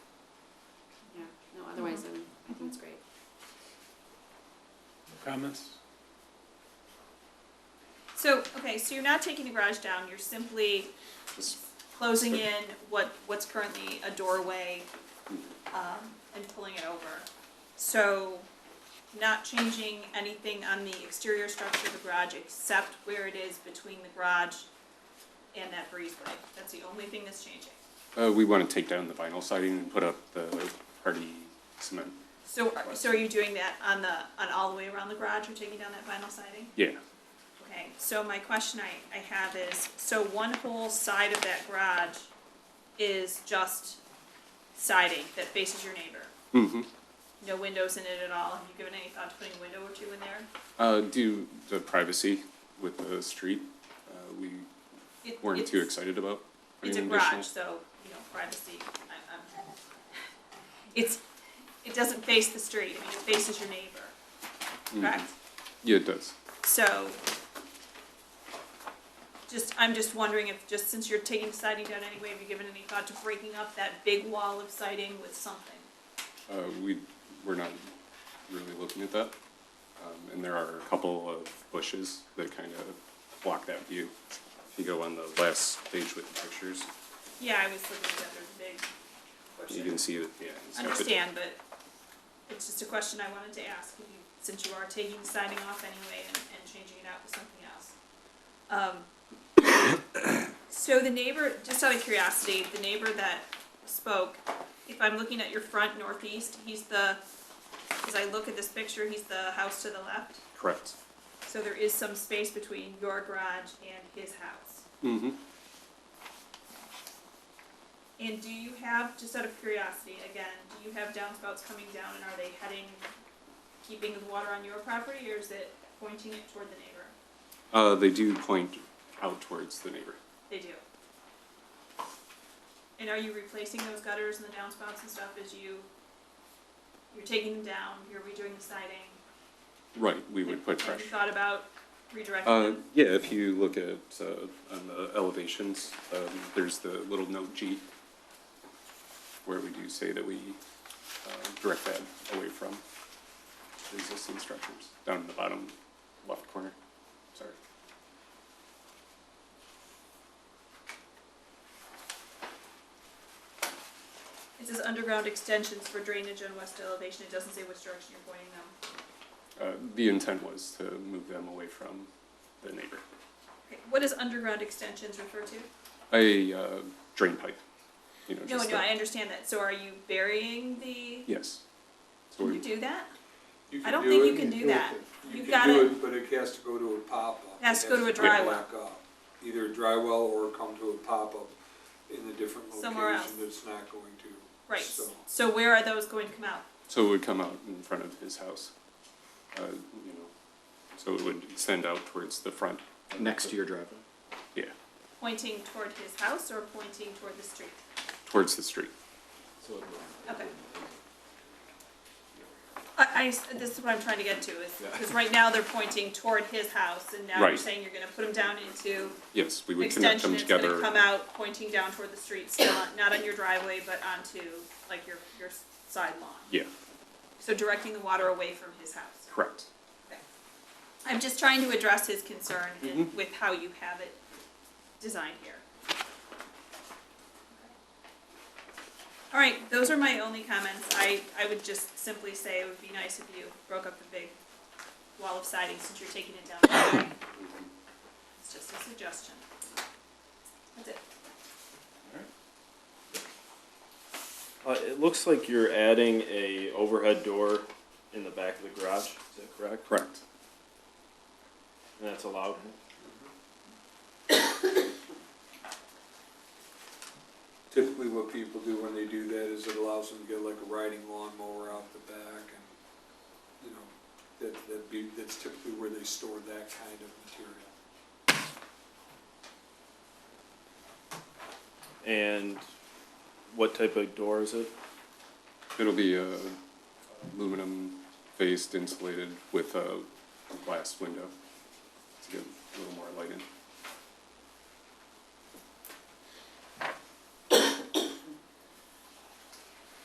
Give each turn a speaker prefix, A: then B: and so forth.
A: comments?
B: So, okay, so you're not taking the garage down, you're simply closing in what, what's currently a doorway, um, and pulling it over. So, not changing anything on the exterior structure of the garage except where it is between the garage and that breezeway. That's the only thing that's changing.
C: Uh, we want to take down the vinyl siding and put up the hardy cement.
B: So, are- so are you doing that on the, on all the way around the garage, you're taking down that vinyl siding?
C: Yeah,
B: Okay, so my question I, I have is, so one whole side of that garage is just siding that faces your neighbor?
C: Mhm.
B: No windows in it at all? Have you given any thought to putting a window or two in there?
C: uh, do the privacy with the street, uh, we
B: It-
C: weren't too
B: it's-
C: excited about.
B: It's a
C: putting additional-
B: garage, so, you know, privacy, I, I'm, it's, it doesn't face the street, I mean, it faces your neighbor, correct?
C: Yeah, it does.
B: So, just, I'm just wondering if, just since you're taking siding down anyway, have you given any thought to breaking up that big wall of siding with something?
C: Uh, we, we're not really looking at that. Um, and there are a couple of bushes that kind of block that view. If you go on the last page with the pictures,
B: Yeah, I was looking at that, there's a big
C: you can
B: portion.
C: see that, yeah. it's got the-
B: Understand, but it's just a question I wanted to ask, if you- since you are taking the siding off anyway and, and changing it out with something else. Um, So the neighbor, just out of curiosity, the neighbor that spoke, if I'm looking at your front northeast, he's the, as I look at this picture, he's the house to the left.
C: Correct.
B: So there is some space between your garage and his house.
C: Mm-hmm.
B: And do you have, just out of curiosity, again, do you have downspouts coming down and are they heading, keeping the water on your property or is it pointing it toward the neighbor?
C: Uh, they do point out towards the neighbor.
B: They do. And are you replacing those gutters and the downspouts and stuff as you, you're taking them down, you're redoing the siding?
C: Right, we would put
B: Have you
C: pressure.
B: thought about redirecting
C: Uh,
B: them?
C: yeah, if you look at, uh, on the elevations, um, there's the little note G where we do say that we, uh, direct that away from the existing structures, down in the bottom left corner, sorry.
B: It says underground extensions for drainage and west elevation, it doesn't say which direction you're pointing them.
C: Uh, the intent was to move them away from the neighbor.
B: Okay, What does underground extensions refer to?
C: A, uh, drain pipe, you know,
B: No,
C: just
B: no, I
C: the,
B: understand that. So are you burying the,
C: yes. So
B: can
C: we-
B: you do that?
D: You
B: I
D: can
B: don't
D: do
B: think
D: it,
B: you can do
D: it.
B: that.
D: You
B: You've
D: can
B: gotta-
D: do it, but it has to go to a pop-up. It
B: Has to go to a
D: be
B: dry
D: back up, Either a dry well or come to a pop-up in a different
B: Somewhere
D: location
B: else.
D: that's not going to.
B: Right,
D: So-
B: so where are those going to come out?
C: So it would come out in front of his house, uh, you know, so it would extend out towards the front.
E: next to your driveway.
C: Yeah,
B: Pointing toward his house or pointing toward the street?
C: towards the street.
B: Okay. I, I s- this is what I'm trying to get to is, because right now they're pointing toward his house and now you're
C: Right.
B: saying you're gonna put them down into
C: Yes, we
B: an
C: would connect
B: extension.
C: them
B: It's gonna
C: together.
B: come out pointing down toward the street, still on- not on your driveway, but onto like your, your s- side lawn.
C: Yeah,
B: So directing the water away from his house.
C: correct.
B: I'm just trying to address his concern in- with how you have it designed here. All right, those are my only comments. I, I would just simply say it would be nice if you broke up the big wall of siding since you're taking it down. anyway. It's just a suggestion. That's it.
F: Uh, it looks like you're adding a overhead door in the back of the garage, is that correct?
C: Correct.
F: And that's allowed?
D: Typically what people do when they do that is it allows them to get like a riding lawnmower out the back and, you know, that, that'd be, that's typically where they store that kind of material.
F: And what type of door is it?
C: It'll be uh, aluminum faced insulated with a glass window to get a little more light in.